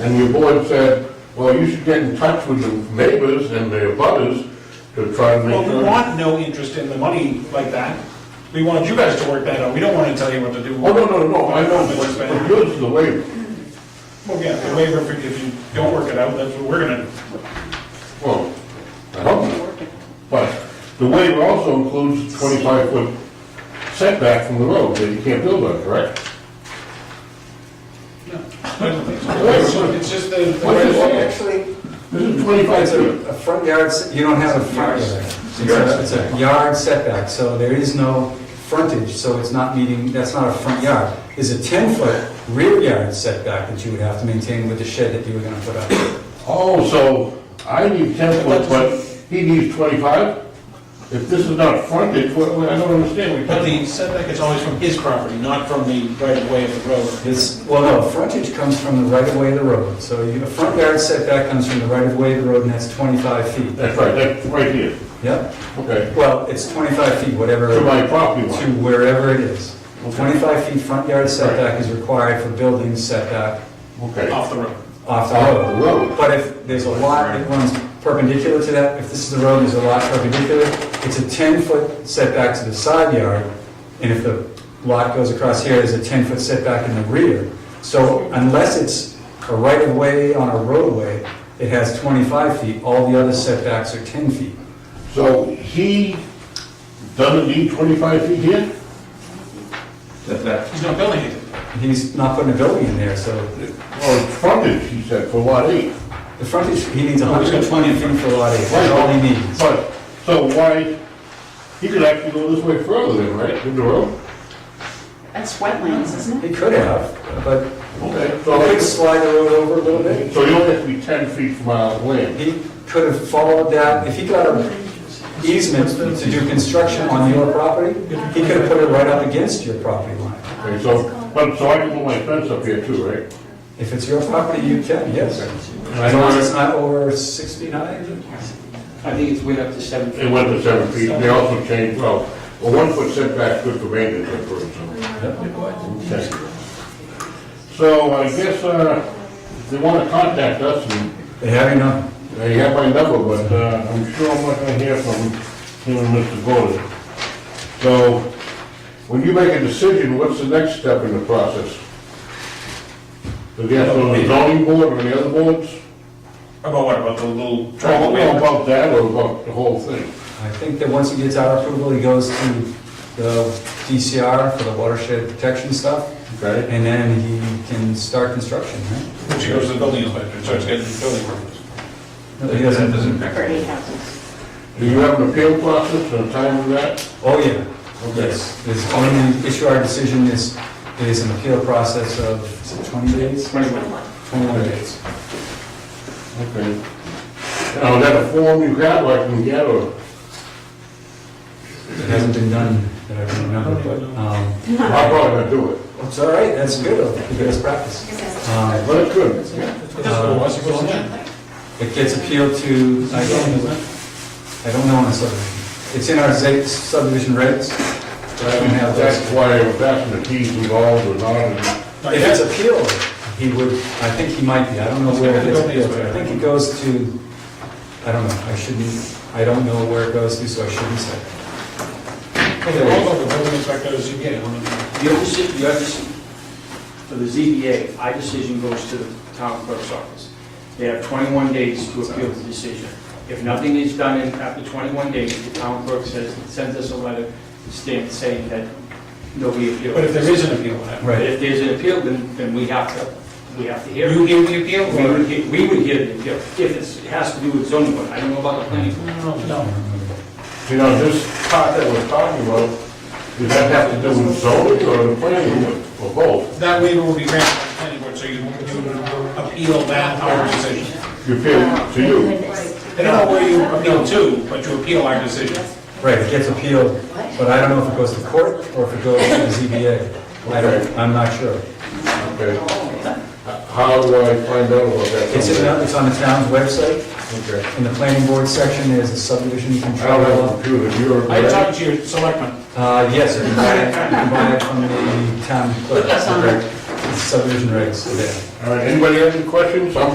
And your board said, well, you should get in touch with your neighbors and their butters to try to make Well, we sure. want no interest in the money like that. We want you guys to work that out. We don't want to tell you what to do. Oh, no, no, no, I know, but but yours is the waiver. Well, yeah, the waiver, if you- if you don't work it out, that's what we're gonna, Well, I hope not. But the waiver also includes twenty-five foot setback from the road that you can't build on, correct? no. I don't think so. It's just- It's just the- the. What way is it's- it? Actually, This is twenty-five it's feet. a a front yard, s- you don't have a front yard. It's a- It's a yard setback, so there is no frontage, so it's not meeting, that's not a front yard. There's a 10-foot rear yard setback that you would have to maintain with the shed that you were going to put up. Oh, so I need ten foot, but he needs twenty-five? If this is not frontage, what, I don't understand. But the setback is always from his property, not from the right of way of the road. It's, well, no, frontage comes from the right-of-way of the road, so you- a front yard setback comes from the right-of-way of the road, and that's 25 feet. That's right, that's right here, Yep, okay. well, it's 25 feet, whatever. To my property line. to wherever it is. Okay. 25 feet front yard setback is required for building setback Okay. Off the road. Off off the the road. road. But if there's a lot that runs perpendicular to that, if this is the road, there's a lot perpendicular, it's a 10-foot setback to the side yard, and if the lot goes across here, there's a 10-foot setback in the rear. So unless it's a right-of-way on a roadway, it has 25 feet, all the other setbacks are 10 feet. So he doesn't need 25 feet here? He's not building anything. He's not putting a building in there, so Or frontage, he said, for lot eight. The frontage, he he's needs got 120 feet for lot eight, that's all he needs. But, so why, he could actually go this way further then, right, in the road? That's wetlands, isn't it? He could have, but Okay. he could So slide the road over a little bit. so you only have to be 10 feet from our land. He could have followed that, if he got an easement to do construction on your property, he could have put it right up against your property line. Okay, so, but, so I can put my fence up here too, right? If it's your property, you can, yes. As long as it's not over 69? I think it's way up to seven. It went to seven feet, they also changed, well, a one-foot setback good for maintenance, and for example. Okay. So I guess, uh, if they want to contact us and They have enough. They have my number, but uh, I'm sure I'm not gonna hear from him and Mr. Bowden. So, when you make a decision, what's the next step in the process? Does he have to go to the zoning board or the other boards? About what, about the little travel Talk waiver? about that or about the whole thing? I think that once he gets our approval, he goes to the DCR for the watershed protection stuff, Okay? and then he can start construction, right? Which goes to the building inspector, and starts getting the building permits. No, he doesn't. For eight houses. Do you have an appeal process and a time for that? Oh, yeah. Okay. Yes. There's only, issue our decision is, is an appeal process of, is it 20 days? Twenty-one. 21 days. Okay. Now, is that a form you got, or I can get, or? It hasn't been done that I can remember, but, um, I'm probably gonna do it, it's all right, that's good, it'll give us practice. Um, but it's good. That's what it was, it wasn't that. It gets appealed to, I don't, I don't know on a subdivision. It's in our ZA subdivision regs, but I don't have That's those. why I was asking if he's involved or not, and Not If it's yet. appealed, he would, I think he might be, I don't know where it is. I think it goes to, I don't know, I shouldn't, I don't know where it goes to, so I shouldn't say. Well, they all go to the building inspector, the ZBA, I don't know. Your decision, your decision, for the ZBA, our decision goes to the town clerk's office. They have 21 days to appeal the decision. If nothing is done in, after 21 days, the town clerk says, sends us a letter stamp saying that nobody appealed. But if there is an appeal, what? But if there's an appeal, then, then we have to, we have to hear. it. hear the appeal? We would, hear- we would hear the appeal, if it's, it has to do with zoning board, I don't know about the planning board. No. You know, this part that we're talking about, does that have to do with zoning or the planning board, or both? That waiver will be granted by the planning board, so you you would appeal that, our decision. You feel, to you? I don't know where you appeal to, but you appeal our decision. Right, it gets appealed, but I don't know if it goes to court or if it goes to the ZBA. I don't, I'm not sure. Okay. How do I find out about that? It's in, it's on the town's website, Okay. in the planning board section, there's a subdivision I don't control have a law. computer, you're. I talked to your selectman. Uh, yes, you can buy it, you can buy it from the town clerk. subdivision regs are there. All right, anybody have any questions? I'm